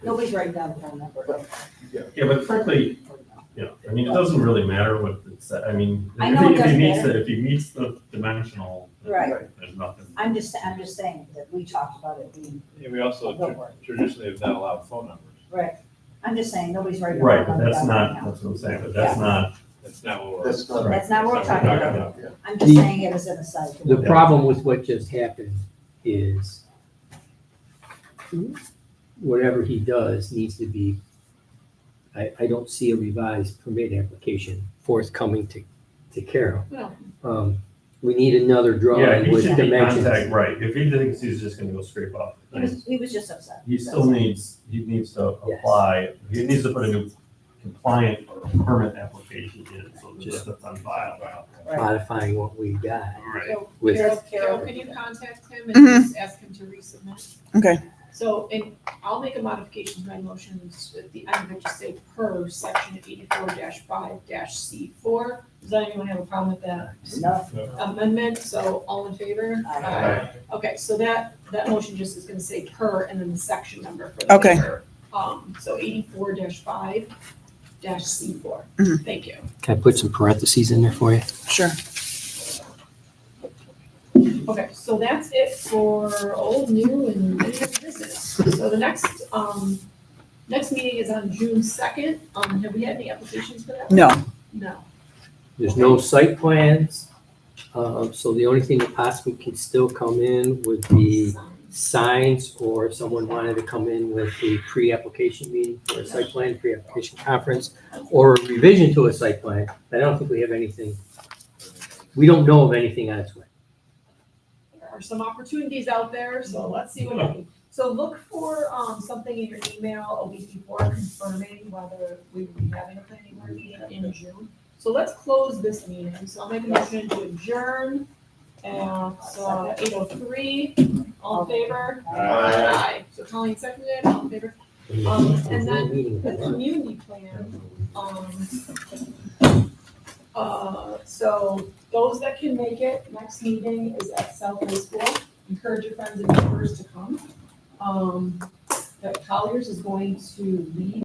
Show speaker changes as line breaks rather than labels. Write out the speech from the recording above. Nobody's writing down the phone number.
Yeah, but frankly,
or no.
yeah, I mean, it doesn't really matter what it's, I mean,
I
if
know
he-
it
if he
doesn't
meets,
matter.
the- if he meets the dimensional, then
Right.
there's nothing.
I'm just, I'm just saying that we talked about it being,
And we also
Oh, Don't worry.
tr- traditionally have not allowed phone numbers.
right. I'm just saying, nobody's writing. the
Right,
phone
but
number down
that's
right
not,
now.
that's what I'm saying, but that's not,
That's not what we're.
That's not.
That's not what we're talking about. I'm just
The-
saying it as an aside.
The
Yeah.
problem with what just happened is whatever he does needs to be, I, I don't see a revised permit application forthcoming to, to Carol.
No.
Um, we need another
yeah,
drawing
he
with
should be contact,
dimensions.
right, if he thinks he's just gonna go scrape up.
He was, he was just upset.
He still needs, he needs to
Yes.
apply, he needs to put a new compliant or permit application in, so that this that's on file.
Modifying what we got
Right,
with,
Carol, Carol,
With-
can you contact him and
Mhm.
just ask him to resubmit?
Okay.
So, and I'll make a modification to my motions at the end, but just say per section eighty-four five C four. Does anyone have a problem with that
No,
amendment? So all in favor?
Aye.
Okay, so that, that motion just is gonna say per and then the section number for the
Okay.
waiver. Um, so eighty-four five C four.
Mhm.
Thank you.
can I put some parentheses in there for you?
Sure.
Okay, so that's it for old, new, and new business. So the next, um, next meeting is on June second. Um, have we had any applications for that?
No,
No.
There's no site plans, um, so the only thing that possibly could still come in would be signs or if someone wanted to come in with a pre-application meeting for a site plan, pre-application conference, or a revision to a site plan, I don't think we have anything, we don't know of anything on its way.
There are some opportunities out there, so let's see what happens. So look for, um, something in your email a week before confirming whether we will be having a planning board meeting in June. So let's close this meeting. So I'll make a motion to adjourn at eight oh three. All in favor? Aye. So Colleen seconded, all in favor? Um, and The community plan, um, uh, so those that can make it, next meeting is at South High School. Encourage your friends and neighbors to come. Um, that Colliers is going to lead